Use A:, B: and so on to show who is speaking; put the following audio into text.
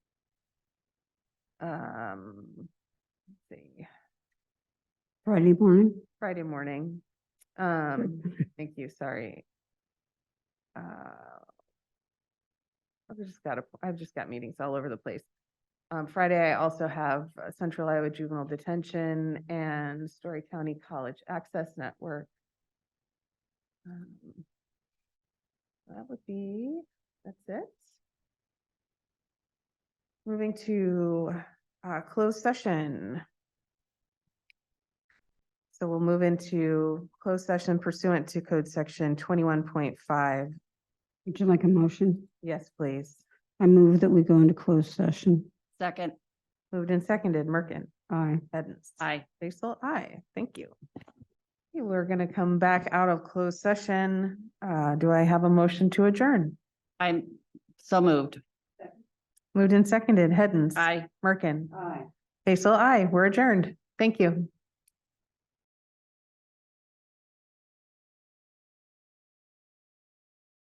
A: um, let's see,
B: Friday morning.
A: Friday morning. Um, thank you, sorry. Uh, I've just got, a- I've just got meetings all over the place. Um, Friday, I also have uh, Central Iowa Juvenile Detention and Story County College Access Network. Um, That would be, that's it. Moving to, uh, closed session. So we'll move into closed session pursuant to code section twenty-one point five.
B: Would you like a motion?
A: Yes, please.
B: I move that we go into closed session.
C: Second,
A: Moved and seconded. Merkin,
B: Aye.
A: Edens.
C: aye.
A: Basil, aye. Thank you. Okay, We're gonna come back out of closed session. Uh, do I have a motion to adjourn?
C: I'm so moved.
A: Moved and seconded. Edens.
C: Aye.
A: Merkin,
B: Aye.
A: Basil, aye. We're adjourned. Thank you.